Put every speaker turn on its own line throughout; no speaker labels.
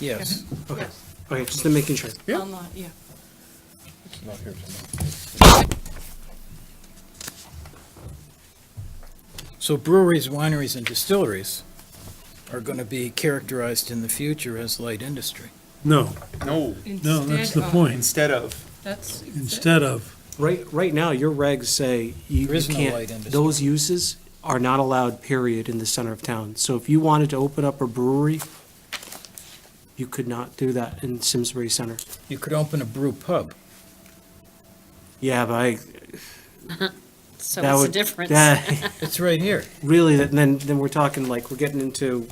Yes.
Okay,
Yes.
okay, just to making sure. Yeah.
Online, yeah.
Not here tonight.
So breweries, wineries, and distilleries are going to be characterized in the future as light industry.
No,
No,
no, that's
Instead
the
of-
point.
instead of,
That's. exa-
Instead of,
Right, right now, your regs say you
There
you
is no light
can't,
industry.
those uses are not allowed, period, in the center of town. So if you wanted to open up a brewery, you could not do that in Simsbury Center.
You could open a brew pub.
Yeah, but I,
So
that
what's the
would.
difference?
that-
It's right here.
Really, that- then, then we're talking like, we're getting into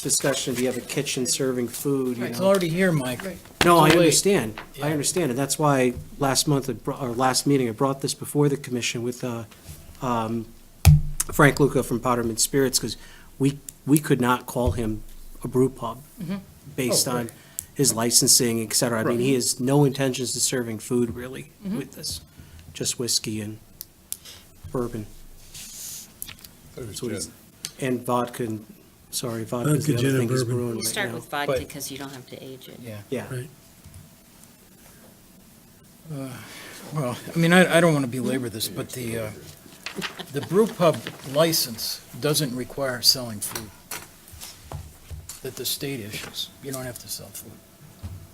discussion, do you have a kitchen serving food, you
Right.
It's
know?
already here, Mike.
Right.
No, I
Too late.
understand.
Yeah.
I understand, and that's why last month, I brou- or last meeting, I brought this before the commission with uh, um, Frank Luca from Powderman Spirits, because we, we could not call him a brew pub based
Oh,
on his licensing, et cetera. I mean, he has no intentions of serving food, really, with this, just whiskey and bourbon
there's
So it's-
gin.
and vodka, and, sorry, vodka is the
Vodka,
other
gin,
thing
and
he's
bourbon.
brewing
You
right
start
now.
with vodka
But-
because you don't have to age it.
Yeah.
Yeah,
right,
Well, I mean, I, I don't want to belabor this, but the, uh, the brew pub license doesn't require selling food that the state issues. You don't have to sell food.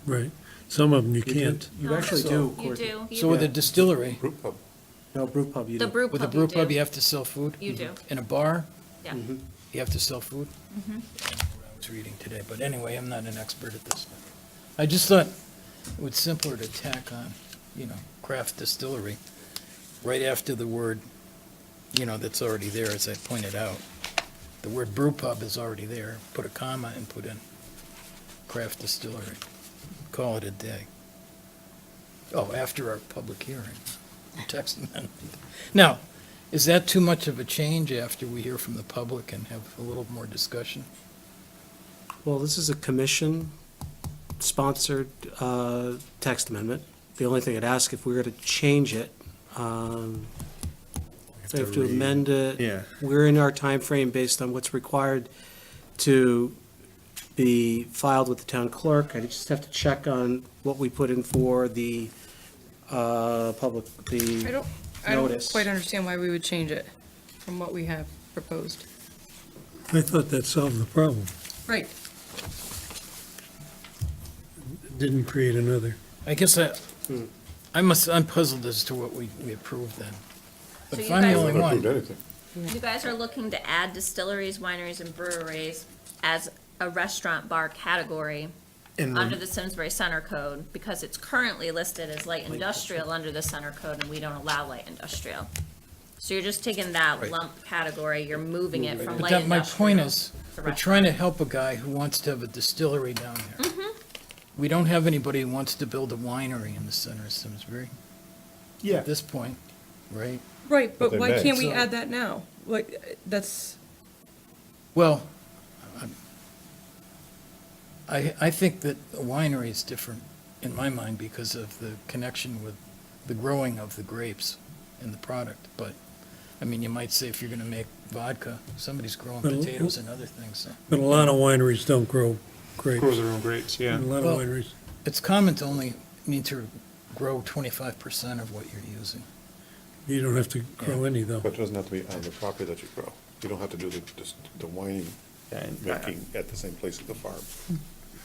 right. Some of them you
You do-
can't.
You actually
So-
do,
You
Courtney.
do,
So with a distillery,
brew pub.
No, brew pub, you
the
do.
brew
with a
pub
brew
you
pub, you
do,
have to sell food?
You do.
In a bar,
yeah.
Mm-hmm.
you have to sell food? I don't know what I was reading today, but anyway, I'm not an expert at this. I just thought it was simpler to tack on, you know, craft distillery, right after the word, you know, that's already there, as I pointed out. The word brew pub is already there, put a comma and put in craft distillery, call it a day. Oh, after our public hearing, text amendment. Now, is that too much of a change after we hear from the public and have a little more discussion?
Well, this is a commission-sponsored uh, text amendment. The only thing I'd ask, if we were to change it, um, we have to amend it.
Yeah.
We're in our time frame based on what's required to be filed with the town clerk. I just have to check on what we put in for the uh, public,
I
the,
don't, I don't
Notice.
quite understand why we would change it from what we have proposed.
I thought that solved the problem.
Right.
It Didn't create another.
I guess I, I must, I'm puzzled as to what we, we approved then. But
So
if
you
I'm the
guys-
only
Haven't approved
one,
anything.
You guys are looking to add distilleries, wineries, and breweries as a restaurant bar category
And
under the Simsbury Center Code, because it's currently listed as light industrial under the Center Code, and we don't allow light industrial. So you're just taking
Right.
that lump category, you're moving it from
but
light
that, my point
industrial
is,
to
we're
restaurant.
trying to help a guy who wants to have a distillery down there.
Mm-hmm.
We don't have anybody who wants to build a winery in the center of Simsbury
Yeah.
at this point, right?
Right,
But
but
they
why
may.
can't we
So-
add that now? Like, uh, that's,
Well, I'm- I, I think that a winery is different in my mind because of the connection with the growing of the grapes in the product. But, I mean, you might say if you're going to make vodka, somebody's growing
Well,
potatoes and other things. so.
But a lot of wineries don't grow grapes.
Grows their own grapes, yeah.
And A lot
Well-
of wineries,
It's common to only need to grow 25% of what you're using.
you don't have to grow any though.
But it doesn't have to be on the property that you grow. You don't have to do the, just the wine making at the same place as the farm.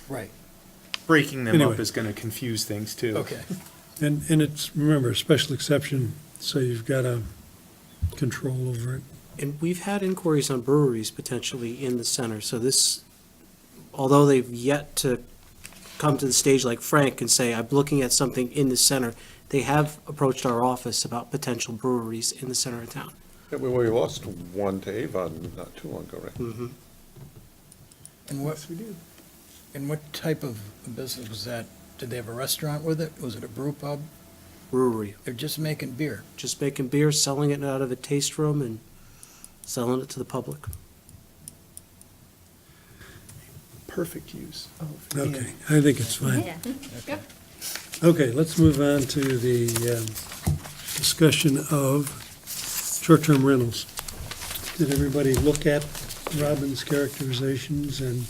Right.
Breaking them
Anyway.
up is gonna confuse things too.
Okay.
And, and it's, remember, a special exception, so you've got a control over it.
and we've had inquiries on breweries potentially in the center. So this, although they've yet to come to the stage like Frank and say, I'm looking at something in the center, they have approached our office about potential breweries in the center of town.
Yeah, we, we lost one to Avon not too long ago, right?
And what,
we do.
and what type of business was that? Did they have a restaurant with it? Was it a brew pub?
Brewery,
They're just making beer.
just making beer, selling it out of a taste room and selling it to the public.
Perfect use. of-
Okay, I think it's fine.
Yeah.
Okay, let's move on to the um, discussion of short-term rentals. Did everybody look at Robin's characterizations and